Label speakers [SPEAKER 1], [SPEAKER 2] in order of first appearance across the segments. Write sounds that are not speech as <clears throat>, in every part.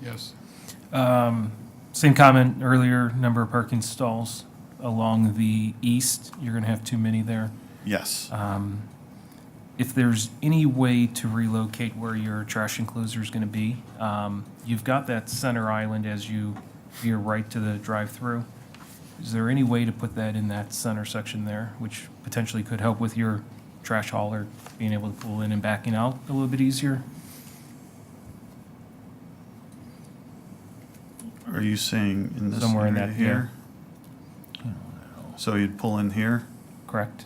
[SPEAKER 1] Yes.
[SPEAKER 2] Um, Same comment earlier, number of parking stalls along the east, you're going to have too many there.
[SPEAKER 3] Yes.
[SPEAKER 2] Um, If there's any way to relocate where your trash enclosure is going to be, um, you've got that center island as you veer right to the drive-through. Is there any way to put that in that center section there, which potentially could help with your trash hauler being able to pull in and backing out a little bit easier?
[SPEAKER 3] Are you saying in this
[SPEAKER 2] Somewhere in
[SPEAKER 3] area
[SPEAKER 2] that,
[SPEAKER 3] here? So you'd pull in here?
[SPEAKER 2] Correct.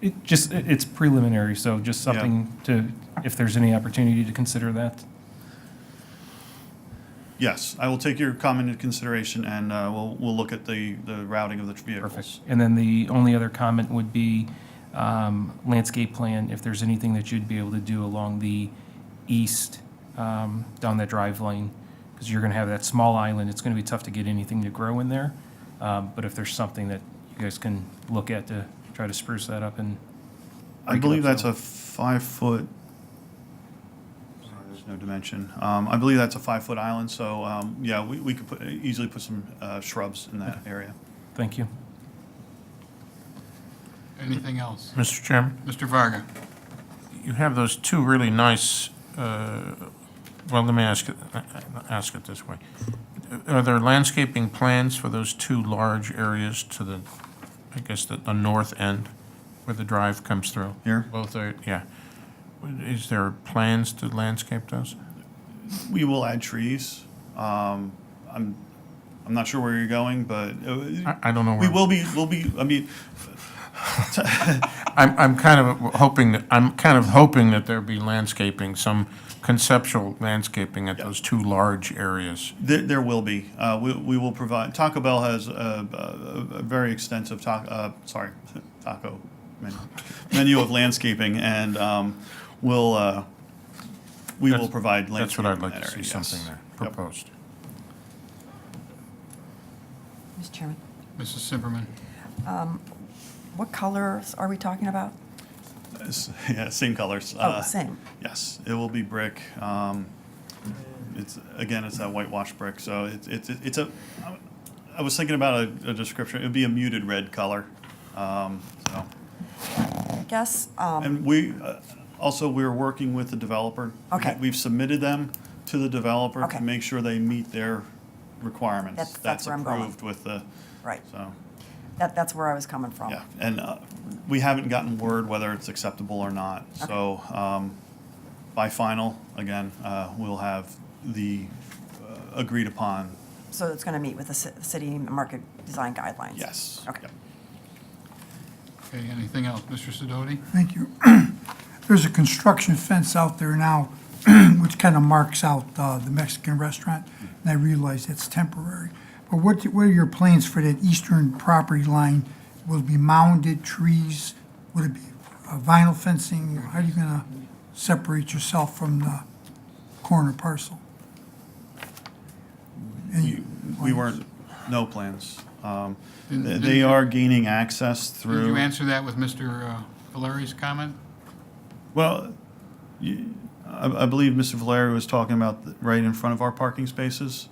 [SPEAKER 2] It just, it- it's preliminary, so just
[SPEAKER 3] Yeah.
[SPEAKER 2] something to, if there's any opportunity to consider that.
[SPEAKER 3] Yes, I will take your comment into consideration and uh, we'll, we'll look at the, the routing of the
[SPEAKER 2] Perfect.
[SPEAKER 3] vehicles.
[SPEAKER 2] And then the only other comment would be um, landscape plan, if there's anything that you'd be able to do along the east, um, down that drive lane, because you're going to have that small island, it's going to be tough to get anything to grow in there. Um, But if there's something that you guys can look at to try to spruce that up and,
[SPEAKER 3] I believe that's a five foot. Sorry, There's no dimension. Um, I believe that's a five foot island, so, um, yeah, we, we could put, easily put some, uh, shrubs in that area.
[SPEAKER 2] thank you.
[SPEAKER 1] Anything else?
[SPEAKER 4] Mr. Chairman,
[SPEAKER 1] Mr. Varga?
[SPEAKER 4] you have those two really nice, uh, well, let me ask, it- uh, ask it this way. Are there landscaping plans for those two large areas to the, I guess, the, the north end where the drive comes through?
[SPEAKER 3] Here?
[SPEAKER 4] Both are, yeah. Is there plans to landscape those?
[SPEAKER 3] We will add trees. Um, I'm, I'm not sure where you're going, but uh,
[SPEAKER 4] I, I don't know
[SPEAKER 3] we
[SPEAKER 4] where.
[SPEAKER 3] will be, we'll be,
[SPEAKER 2] <laughs>
[SPEAKER 3] I mean,
[SPEAKER 4] I'm, I'm kind of hoping that, I'm kind of hoping that there be landscaping, some conceptual landscaping at those two large areas.
[SPEAKER 3] There, there will be. Uh, we, we will provide. Taco Bell has a, a, a very extensive taco. Uh, sorry, <laughs> taco menu, menu of landscaping, and um, we'll uh, we will
[SPEAKER 4] That's-
[SPEAKER 3] provide landscaping.
[SPEAKER 4] That's what I'd like
[SPEAKER 3] in
[SPEAKER 4] to
[SPEAKER 3] that
[SPEAKER 4] see,
[SPEAKER 3] area,
[SPEAKER 4] something
[SPEAKER 3] yes.
[SPEAKER 4] there
[SPEAKER 3] Yep.
[SPEAKER 4] proposed.
[SPEAKER 5] Mr. Chairman,
[SPEAKER 1] Mrs. Simperman?
[SPEAKER 5] what colors are we talking about?
[SPEAKER 3] It's- <laughs> yeah, same colors. Uh,
[SPEAKER 5] Oh, same.
[SPEAKER 3] Yes, it will be brick. Um, it's again, it's that whitewash brick. So it's it's it's a. I was thinking about a, a description. It'd be a muted red color. Um, so.
[SPEAKER 5] I guess, um,
[SPEAKER 3] And we, uh, also, we're working with the developer.
[SPEAKER 5] Okay.
[SPEAKER 3] We've submitted them to the developer
[SPEAKER 5] Okay.
[SPEAKER 3] to make sure they meet their requirements.
[SPEAKER 5] That's- that's where I'm going.
[SPEAKER 3] approved with the,
[SPEAKER 5] right, Oh.
[SPEAKER 3] so,
[SPEAKER 5] that, that's where I was coming from.
[SPEAKER 3] yeah. And uh, we haven't gotten word whether it's acceptable or not. So um, by final, again, uh, we'll have the uh, agreed upon,
[SPEAKER 5] So it's going to meet with the ci- city market design guidelines?
[SPEAKER 3] yes.
[SPEAKER 5] Okay.
[SPEAKER 3] Yep.
[SPEAKER 1] Okay, anything else? Mr. Sidoti?
[SPEAKER 6] Thank you. <clears throat> There's a construction fence out there now, <clears throat> which kind of marks out uh, the Mexican restaurant, and I realize that's temporary. But what, what are your plans for that eastern property line? Will it be mounded trees? Would it be uh, vinyl fencing? How are you going to separate yourself from the corner parcel?
[SPEAKER 3] We- We weren't, no plans. Um,
[SPEAKER 1] Didn't-
[SPEAKER 3] They
[SPEAKER 1] didn't-
[SPEAKER 3] they are gaining access through.
[SPEAKER 1] Did you answer that with Mr. uh, Valeri's comment?
[SPEAKER 3] Well, you, I, I believe Mr. Valeri was talking about the- right in front of our parking spaces.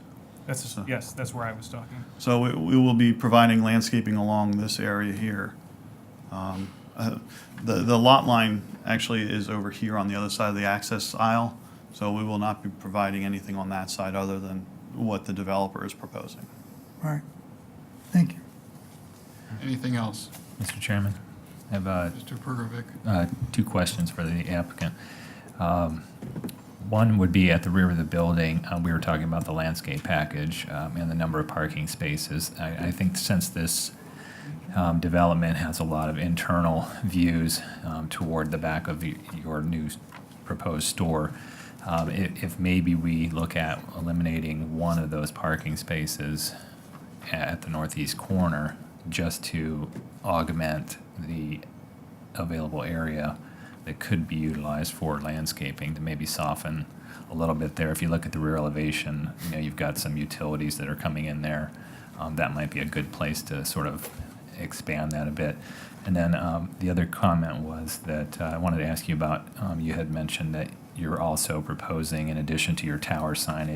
[SPEAKER 2] That's, yes, that's where I was talking.
[SPEAKER 3] So we, we will be providing landscaping along this area here. Um, uh, The, the lot line actually is over here on the other side of the access aisle, so we will not be providing anything on that side other than what the developer is proposing.
[SPEAKER 6] All right, thank you.
[SPEAKER 1] Anything else?
[SPEAKER 7] Mr. Chairman, I have uh,
[SPEAKER 1] Mr. Pergovic?
[SPEAKER 7] uh, two questions for the applicant. Um, One would be at the rear of the building, uh, we were talking about the landscape package um, and the number of parking spaces. I I think since this um, development has a lot of internal views um, toward the back of the- your new s- proposed store. um, i- If maybe we look at eliminating one of those parking spaces at the northeast corner just to augment the available area that could be utilized for landscaping to maybe soften a little bit there. If you look at the rear elevation, you know, you've got some utilities that are coming in there. Um, that might be a good place to sort of expand that a bit. And then um, the other comment was that uh, I wanted to ask you about, um, you had mentioned that you're also proposing, in addition to your tower signage,